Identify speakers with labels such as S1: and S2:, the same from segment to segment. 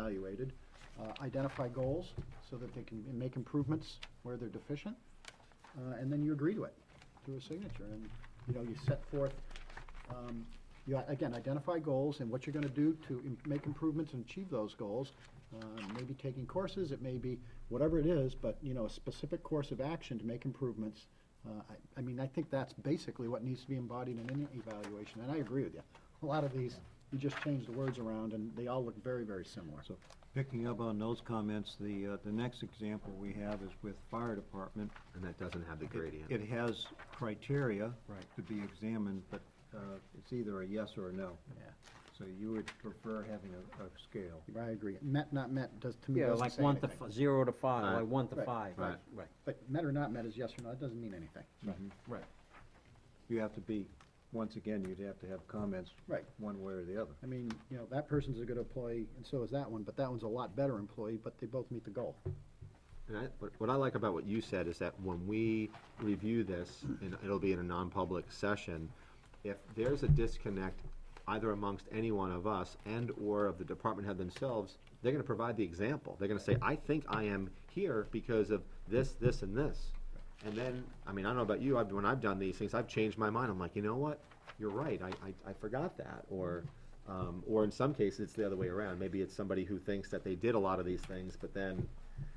S1: evaluated, uh, identify goals so that they can make improvements where they're deficient, uh, and then you agree to it through a signature. And, you know, you set forth, um, you, a- again, identify goals and what you're gonna do to im- make improvements and achieve those goals. Uh, Maybe taking courses, it may be whatever it is, but, you know, a specific course of action to make improvements. Uh, I, I mean, I think that's basically what needs to be embodied in any evaluation, and I agree with you. A lot of these, you just change the words around and they all look very, very similar.
S2: So picking up on those comments, the, uh, the next example we have is with fire department.
S3: And that doesn't have the
S2: It-
S3: gradient.
S2: It has criteria.
S1: Right.
S2: To be examined, but, uh, it's either a yes or a no.
S1: Yeah.
S2: So you would prefer having a, a scale.
S1: I agree. Met, not met, does, to me,
S4: Yeah,
S1: doesn't
S4: like
S1: say
S4: one to,
S1: anything.
S4: f- zero to five,
S3: Right.
S4: like one to
S1: Right,
S4: five.
S3: right.
S4: Right.
S1: But met or not met is yes or no, it doesn't mean anything.
S2: Mhm.
S4: Right.
S2: You have to be, once again, you'd have to have comments.
S1: Right.
S2: One way or the other.
S1: I mean, you know, that person's a good employee, and so is that one, but that one's a lot better employee, but they both meet the goal.
S3: And I, what- what I like about what you said is that when we review this, and it'll be in a non-public session, if there's a disconnect either amongst any one of us and/or of the department head themselves, they're gonna provide the example. They're gonna say, I think I am here because of this, this, and this. And then, I mean, I don't know about you, I've, when I've done these things, I've changed my mind. I'm like, you know what? You're right, I, I, I forgot that, or, um, or in some cases, it's the other way around. Maybe it's somebody who thinks that they did a lot of these things, but then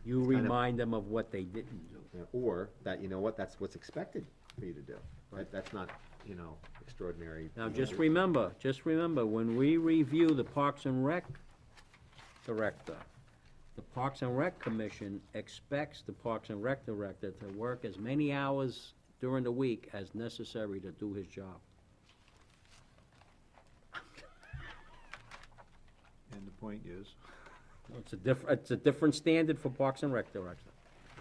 S4: You
S3: kind of-
S4: remind them of what they didn't do.
S3: you know, Or that, you know what, that's what's expected for you to do, right? That's not, you know, extraordinary.
S4: Now, just remember, just remember, when we review the Parks and Rec Director, the Parks and Rec Commission expects the Parks and Rec Director to work as many hours during the week as necessary to do his job.
S2: And the point is,
S4: It's a diff, it's a different standard for Parks and Rec Director.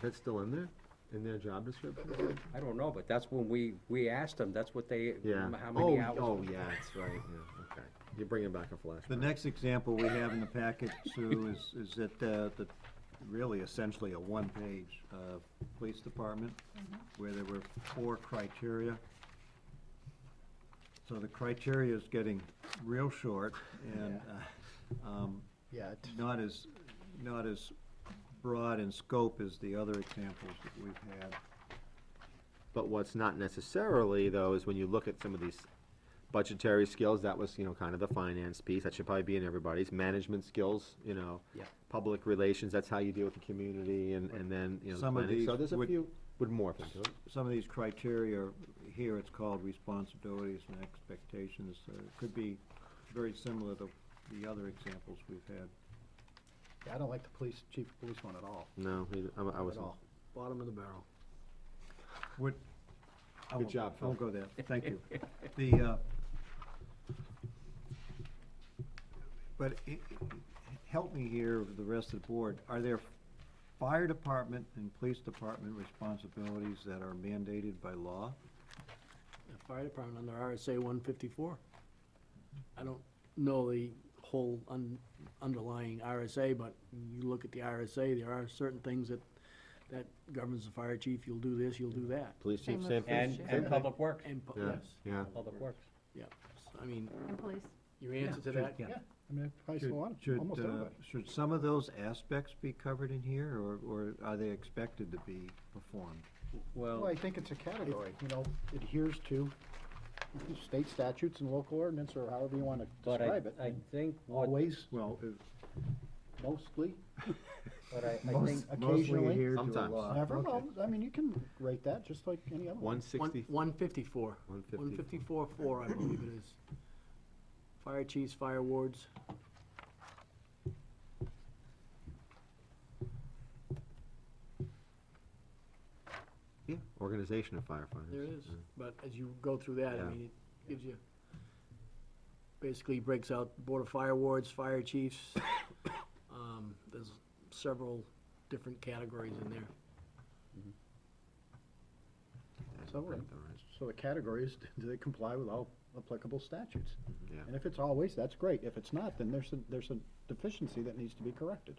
S3: That's still in there, in their job description?
S4: I don't know, but that's when we, we asked them, that's what they,
S3: Yeah.
S4: how
S3: Oh,
S4: many hours.
S3: Oh, yeah, that's right, yeah, okay. You're bringing back a
S2: the
S3: flashback.
S2: next example we have in the packet, Sue, is, is that, uh, the, really essentially a one-page, uh, police department, where there were four criteria. So the criteria is getting real short and, uh, um,
S1: Yeah, it-
S2: not as, not as broad in scope as the other examples that we've had.
S3: But what's not necessarily, though, is when you look at some of these budgetary skills, that was, you know, kind of the finance piece, that should probably be in everybody's. Management skills, you know.
S4: Yeah.
S3: Public relations, that's how you deal with the community, and, and then, you know. the
S2: Some of
S3: planning. So
S2: these
S3: there's a
S2: would-
S3: few, would morph into it.
S2: Some of these criteria, here it's called responsibilities and expectations, uh, could be very similar to the other examples we've had.
S1: I don't like the police, chief of police one at all.
S3: No, neither- I, I
S1: At
S3: wasn't.
S1: all.
S3: Bottom of the barrel.
S2: Would. I
S3: Good
S2: won't-
S3: job,
S2: I won't
S3: Phil.
S2: go there, thank you. The, uh, but i- i- help me here, with the rest of the board, are there fire department and police department responsibilities that are mandated by law?
S5: the fire department under RSA one fifty-four. I don't know the whole un- underlying RSA, but you look at the RSA, there are certain things that, that governs the fire chief, you'll do this, you'll do that.
S3: Police
S6: Same
S3: chief,
S6: with
S3: same thing.
S4: And,
S6: Same
S4: and
S6: thing.
S4: Public Works,
S5: And, pu-
S3: Yeah,
S5: yes,
S3: yeah.
S4: Public Works.
S5: yeah, I mean,
S6: And police.
S5: your answer to
S2: Should-
S5: that,
S1: Yeah, I mean, I probably
S2: Should-
S1: saw a lot, of-
S2: should,
S1: almost
S2: uh,
S1: everybody.
S2: Should some of those aspects be covered in here, or, or are they expected to be performed?
S1: Well,
S4: Well,
S1: I think it's a category, you know, adheres to state statutes and local ordinance, or however you wanna
S4: but I,
S1: describe it.
S4: I think what,
S1: Always,
S2: Well, uh,
S1: mostly,
S4: but I, I think,
S2: most, mostly
S1: occasionally-
S2: adhere to a
S3: Sometimes.
S2: law.
S1: never,
S2: Okay.
S1: well, I mean, you can rate that just like any other one.
S3: One sixty,
S5: one fifty-four.
S3: 154.
S5: One fifty-four four, I believe it is. Fire chiefs, fire wards,
S3: yeah, organization of firefighters.
S5: there is,
S3: yeah.
S5: but as you go through that, I
S3: Yeah.
S5: mean, it gives you, basically breaks out Board of Fire Wards, fire chiefs. Um, There's several different categories in there.
S3: Yeah,
S1: So,
S3: right,
S1: um,
S3: all right,
S1: So the category is, do they comply with all applicable statutes?
S3: Yeah.
S1: And if it's always, that's great. If it's not, then there's a, there's a deficiency that needs to be corrected.